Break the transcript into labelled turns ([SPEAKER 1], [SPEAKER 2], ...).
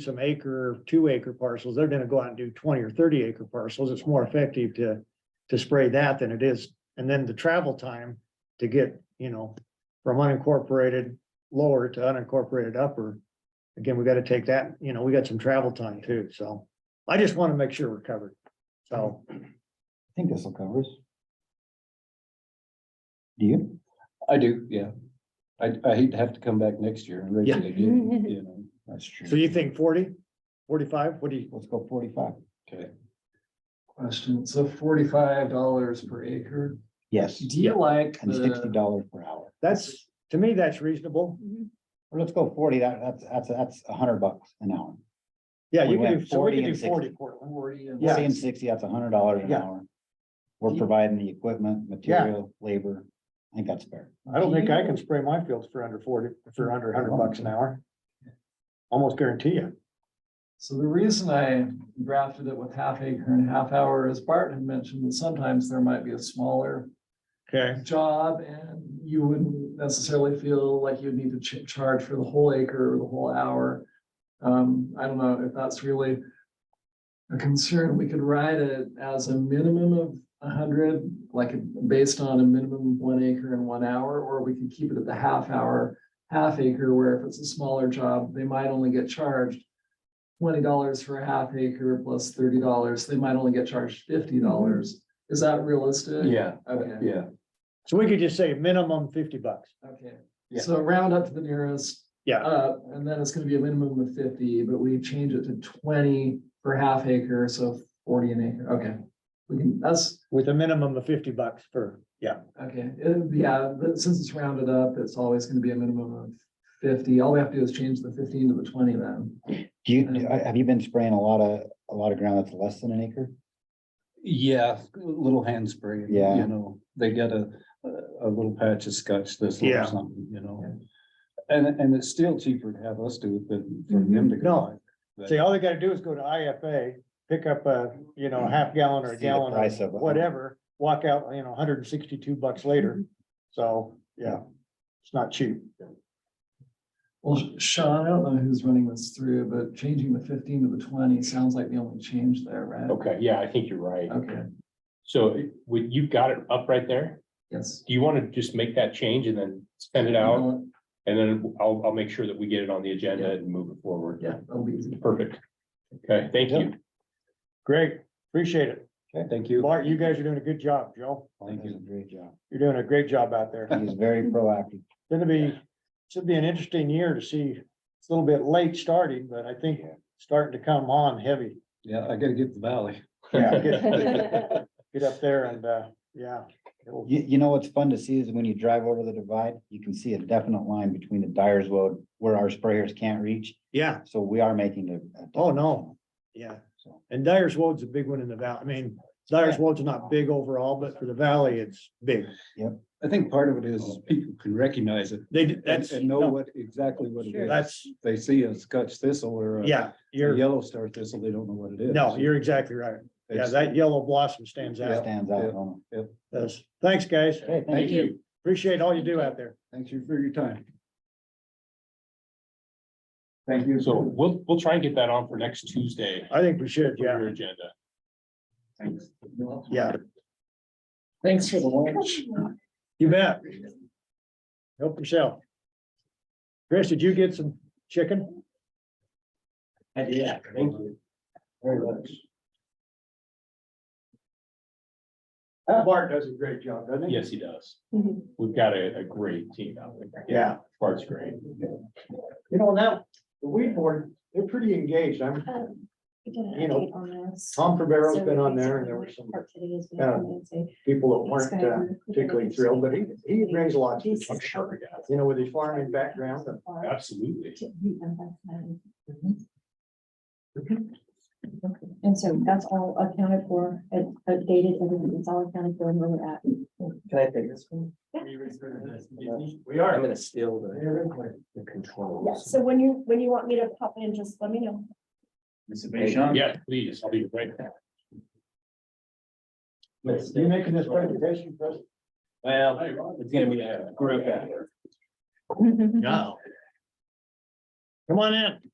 [SPEAKER 1] some acre, two acre parcels, they're gonna go out and do twenty or thirty acre parcels. It's more effective to, to spray that than it is. And then the travel time to get, you know, from unincorporated lower to unincorporated upper. Again, we gotta take that, you know, we got some travel time too, so I just wanna make sure we're covered. So,
[SPEAKER 2] I think this will cover us. Do you?
[SPEAKER 3] I do, yeah. I, I hate to have to come back next year and raise
[SPEAKER 1] Yeah.
[SPEAKER 3] it again, you know,
[SPEAKER 2] That's true.
[SPEAKER 1] so you think 40, 45? what do you,
[SPEAKER 2] Let's go forty-five.
[SPEAKER 3] okay.
[SPEAKER 4] Question, so forty-five dollars per acre,
[SPEAKER 2] Yes,
[SPEAKER 4] do you like
[SPEAKER 1] Uh,
[SPEAKER 2] and sixty
[SPEAKER 4] the,
[SPEAKER 2] dollars per hour.
[SPEAKER 1] that's, to me, that's reasonable.
[SPEAKER 2] Or let's go forty, that, that's, that's, that's a hundred bucks an hour.
[SPEAKER 1] Yeah, you
[SPEAKER 2] We
[SPEAKER 1] can
[SPEAKER 2] went
[SPEAKER 1] do, so we
[SPEAKER 2] 40
[SPEAKER 1] can do
[SPEAKER 2] and 60.
[SPEAKER 1] forty, Cortland.
[SPEAKER 4] forty and
[SPEAKER 1] Yeah.
[SPEAKER 2] Forty and sixty, that's a hundred dollars an
[SPEAKER 1] Yeah.
[SPEAKER 2] hour. We're
[SPEAKER 4] You-
[SPEAKER 2] providing the equipment, material, labor. I think that's fair.
[SPEAKER 1] I don't think I can spray my fields for under forty, for under hundred bucks an hour. Almost guarantee you.
[SPEAKER 4] So the reason I drafted it with half acre and half hour is Bart had mentioned that sometimes there might be a smaller
[SPEAKER 1] Okay.
[SPEAKER 4] job and you wouldn't necessarily feel like you'd need to ch- charge for the whole acre or the whole hour. Um, I don't know if that's really a concern. We could write it as a minimum of hundred, like based on a minimum of one acre and one hour, or we could keep it at the half hour, half acre, where if it's a smaller job, they might only get charged twenty dollars for a half acre plus thirty dollars. They might only get charged fifty dollars. Is that realistic?
[SPEAKER 3] Yeah,
[SPEAKER 4] Okay.
[SPEAKER 3] yeah,
[SPEAKER 1] So we could just say minimum fifty bucks.
[SPEAKER 4] Okay,
[SPEAKER 3] Yeah.
[SPEAKER 4] so round up to the nearest,
[SPEAKER 1] Yeah,
[SPEAKER 4] uh, and then it's gonna be a minimum of fifty, but we change it to twenty per half acre, so forty an acre, okay. We can, that's,
[SPEAKER 1] with a minimum of fifty bucks for, yeah,
[SPEAKER 4] okay, it- yeah, but since it's rounded up, it's always gonna be a minimum of fifty, all we have to do is change the fifteen to the twenty then.
[SPEAKER 2] Do you, do- have you been spraying a lot of, a lot of ground that's less than an acre?
[SPEAKER 3] yeah, a little hand spray.
[SPEAKER 2] Yeah.
[SPEAKER 3] You know, they got a, a little patch of scotch this
[SPEAKER 1] Yeah.
[SPEAKER 3] or something, you know. And, and it's still cheaper to have us do it than for them to
[SPEAKER 1] No.
[SPEAKER 3] go. buy.
[SPEAKER 1] see, all they gotta do is go to IFA, pick up a, you know, half gallon or
[SPEAKER 2] See
[SPEAKER 1] a
[SPEAKER 2] the
[SPEAKER 1] gallon
[SPEAKER 2] price
[SPEAKER 1] or
[SPEAKER 2] of it.
[SPEAKER 1] whatever. Walk out, you know, hundred and sixty-two bucks later, so, yeah, it's not cheap.
[SPEAKER 4] Well, Sean, I don't know who's running this through, but changing the fifteen to the twenty sounds like the only change there, right?
[SPEAKER 5] Okay, yeah, I think you're right.
[SPEAKER 4] Okay,
[SPEAKER 5] So it- would, you've got it up right there.
[SPEAKER 4] yes.
[SPEAKER 5] Do you want to just make that change and then send it
[SPEAKER 1] Mm-hmm.
[SPEAKER 5] out? And then I'll, I'll make sure that we get it on the agenda and move it forward.
[SPEAKER 4] Yeah, that'll be easy.
[SPEAKER 5] Perfect. Okay, thank you.
[SPEAKER 1] Great, appreciate it.
[SPEAKER 3] Thank you.
[SPEAKER 1] Bart, you guys are doing a good job, Joe.
[SPEAKER 2] Thank you. Great job.
[SPEAKER 1] You're doing a great job out there.
[SPEAKER 2] He's very proactive.
[SPEAKER 1] Gonna be, should be an interesting year to see. It's a little bit late starting, but I think starting to come on heavy.
[SPEAKER 3] Yeah, I gotta get the valley.
[SPEAKER 1] Get get up there and, uh, yeah. it'll-
[SPEAKER 2] You, you know what's fun to see is when you drive over the divide, you can see a definite line between the Dyer's Road where our sprayers can't reach.
[SPEAKER 1] Yeah,
[SPEAKER 2] So we are making a. a-
[SPEAKER 1] oh, no, yeah.
[SPEAKER 2] So,
[SPEAKER 1] And Dyer's Wood's a big one in the valley. I mean, Dyer's Wood's not big overall, but for the valley, it's big.
[SPEAKER 3] I think part of it is people can recognize it
[SPEAKER 1] They, d-
[SPEAKER 3] and,
[SPEAKER 1] that's,
[SPEAKER 3] and know what, exactly what it is.
[SPEAKER 1] that's,
[SPEAKER 3] They see a scotch thistle or a
[SPEAKER 1] yeah, you're,
[SPEAKER 3] yellow star thistle, they don't know what it is.
[SPEAKER 1] no, you're exactly right. Yeah, that yellow blossom stands
[SPEAKER 2] it
[SPEAKER 1] out.
[SPEAKER 2] Stands out.
[SPEAKER 3] yeah.
[SPEAKER 2] don't it?
[SPEAKER 1] Does. Thanks, guys.
[SPEAKER 2] Okay, thank
[SPEAKER 5] Thank
[SPEAKER 2] you.
[SPEAKER 5] you.
[SPEAKER 1] Appreciate all you do out there.
[SPEAKER 3] Thank you for your time.
[SPEAKER 4] Thank you.
[SPEAKER 5] So we'll, we'll try and get that on for next Tuesday.
[SPEAKER 1] I think we should,
[SPEAKER 5] for
[SPEAKER 1] yeah,
[SPEAKER 5] Your agenda.
[SPEAKER 1] yeah.
[SPEAKER 4] Thanks for the lunch.
[SPEAKER 1] You bet. Help yourself. Chris, did you get some chicken?
[SPEAKER 5] I did, thank you.
[SPEAKER 3] Very much.
[SPEAKER 1] Bart does a great job, doesn't
[SPEAKER 5] Yes, he does. We've got a, a great team out there.
[SPEAKER 1] Yeah.
[SPEAKER 5] Bart's great.
[SPEAKER 1] You know, now, the weed board, they're pretty engaged. I'm,
[SPEAKER 6] Um,
[SPEAKER 1] You
[SPEAKER 6] You
[SPEAKER 1] know, Tom Ferbero's been on there and there were some uh, people that weren't uh, particularly thrilled, but he, he brings a lot to the
[SPEAKER 6] I'm
[SPEAKER 1] table.
[SPEAKER 6] sure, yeah.
[SPEAKER 1] You know, with his farming background, and
[SPEAKER 5] Absolutely.
[SPEAKER 6] And so that's all accounted for, uh, updated, everything, it's all accounted for and where we're at.
[SPEAKER 7] Can I take this one?
[SPEAKER 5] We are.
[SPEAKER 7] I'm gonna steal the, the
[SPEAKER 6] Yeah,
[SPEAKER 7] controls.
[SPEAKER 6] so when you, when you want me to pop in, just let me know.
[SPEAKER 5] Yeah, please, I'll be right back.
[SPEAKER 1] you making this presentation for us?
[SPEAKER 7] Well,
[SPEAKER 5] It's gonna be a group effort.
[SPEAKER 6] Thank
[SPEAKER 5] No.
[SPEAKER 1] Come on in.